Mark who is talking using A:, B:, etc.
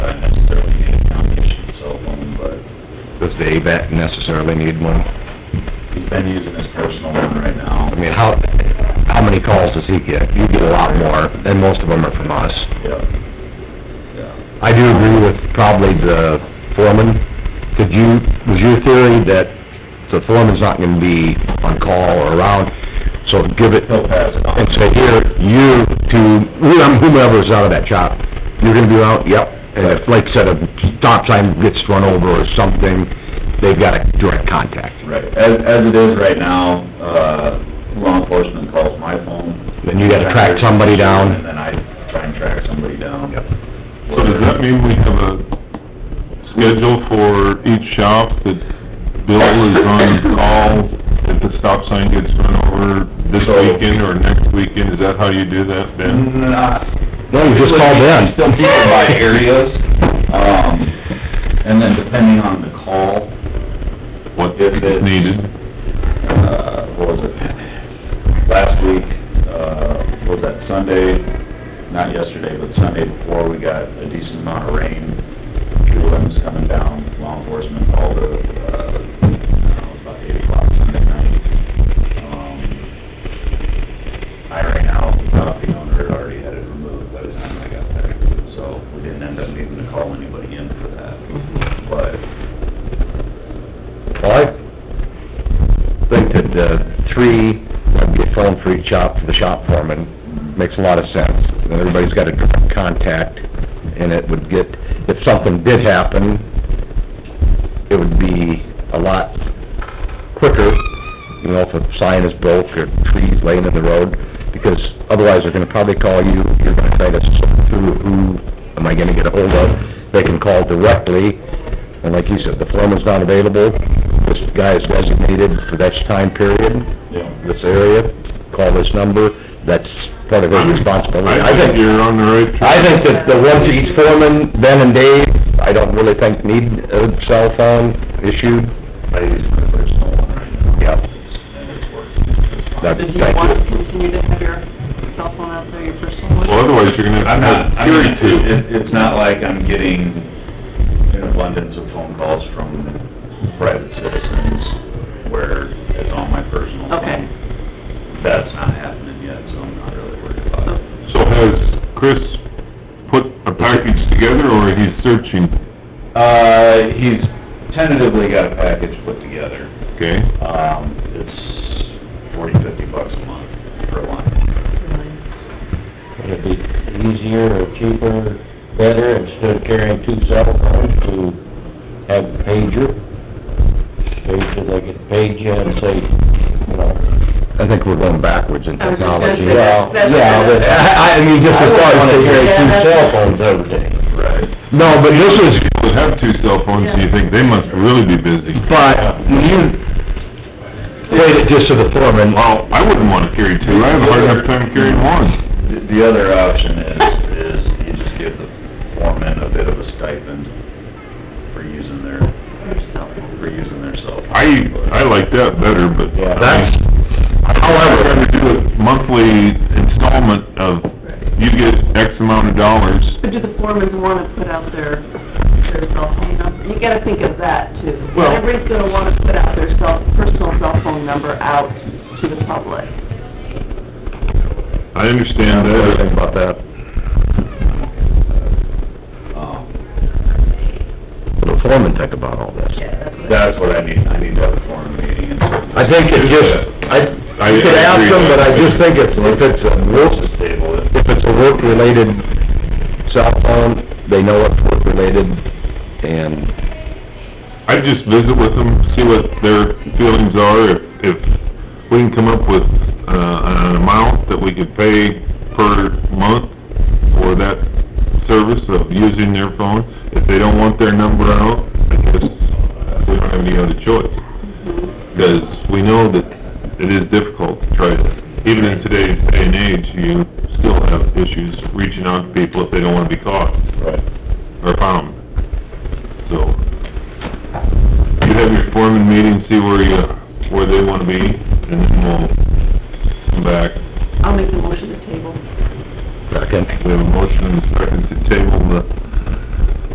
A: the AVAC necessarily need one?
B: He's been using his personal one right now.
A: I mean, how, how many calls does he get? You get a lot more, and most of them are from us.
B: Yeah. Yeah.
A: I do agree with probably the foreman. Could you, was your theory that the foreman's not gonna be on call or around, so give it,
B: He'll pass it on.
A: and say, here, you to, whomever's out of that shop, you're gonna be out, yep. And if, like I said, a stop sign gets run over or something, they've got a direct contact.
B: Right, as, as it is right now, uh, law enforcement calls my phone.
A: Then you gotta track somebody down.
B: And then I try and track somebody down.
A: Yep.
C: So does that mean we have a schedule for each shop that Bill is on call if the stop sign gets run over this
B: So-
C: weekend or next weekend? Is that how you do that, Ben?
B: Not.
A: No, you just call Ben.
B: Still keep it by areas, um, and then depending on the call,
C: What
B: If it's-
C: is needed?
B: uh, what was it? Last week, uh, was that Sunday, not yesterday, but Sunday before, we got a decent amount of rain. Tree limbs coming down, law enforcement called it, uh, about eight o'clock Sunday night. Um, I ran out, the property owner had already had it removed by the time I got there, so we didn't end up needing to call anybody in for that. But
A: Well, I think that the three, that'd be a phone for each shop, for the shop foreman, makes a lot of sense. Then everybody's got a direct contact, and it would get, if something did happen, it would be a lot quicker, you know, if a sign is broke or trees laying in the road, because otherwise they're gonna probably call you, you're gonna try to sort through who am I gonna get a hold of. They can call directly, and like you said, the foreman's not available, this guy is designated for that time period,
B: Yeah.
A: this area, call this number, that's part of his responsibility.
C: I think you're on the right track.
A: I think that the one for each foreman, Ben and Dave, I don't really think need a cell phone issued.
B: I use my personal one right now.
A: Yep.
B: And it's working.
A: That's,
D: Do
A: thank
D: you want to
A: you.
D: continue to have your cell phone out there, your personal one?
C: Well, otherwise you're gonna
B: I'm
C: have
B: not,
C: to
B: I
C: have
B: mean,
C: a
B: it's,
C: jury
B: it- it's not like I'm getting an abundance of phone calls from private citizens where it's on my personal phone.
D: Okay.
B: That's not happening yet, so I'm not really worried about it.
C: too. So has Chris put a package together or he's searching?
B: Uh, he's tentatively got a package put together.
C: Okay,
B: Um, it's forty, fifty bucks a month per line.
E: Would it be easier or cheaper, better, instead of carrying two cell phones, to have a pager? Pager, they could page you and say, you know,
A: I think we're going backwards in
D: I was just gonna
A: technology.
D: say, that's- that's-
A: Yeah, but I, I- I mean, just
E: I
A: as far
E: wouldn't
A: as
E: wanna carry
A: the...
D: Yeah,
E: two
D: that's-
E: cell phones every day.
B: Right.
A: No, but this is,
C: people have two cell phones, do you think they must really be busy?
A: but when you played it just to the foreman,
C: Well, I wouldn't wanna carry two, I have a hard enough time carrying one.
B: The the other option is, is you just give the foreman a bit of a stipend for using their,
D: Your cell phone.
B: for using their cell phone.
C: I, I like that better, but.
E: Yeah.
A: that's,
C: However, I'm gonna do a monthly installment of, you get X amount of dollars.
D: But do the foremans want to put out their, their cell phone number? You gotta think of that too.
C: Well-
D: Not Everybody's gonna want to put out their cell, personal cell phone number out to the public.
C: I understand
A: what do you think
C: that.
A: about that?
B: Um,
A: What do the foreman think about all this?
B: That's what I need, I need to have a foreman meeting and.
A: I think it just, I,
C: I-
A: you could
C: I
A: ask
C: agree
A: them,
C: with
A: but I
C: that.
A: just think it's, if it's a work,
B: Just table it.
A: if it's a work-related cell phone, they know it's work-related, and
C: I'd just visit with them, see what their feelings are, if, if we can come up with, uh, an amount that we could pay per month for that service of using their phone. If they don't want their number out, I guess we don't have any other choice. Because we know that it is difficult to try to, even in today's day and age, you still have issues reaching out to people if they don't wanna be caught
B: Right.
C: or found. So, you have your foreman meeting, see where you, where they wanna be, and then we'll come back.
D: I'll make a motion to table.
A: second.
C: We have a motion and a second to table the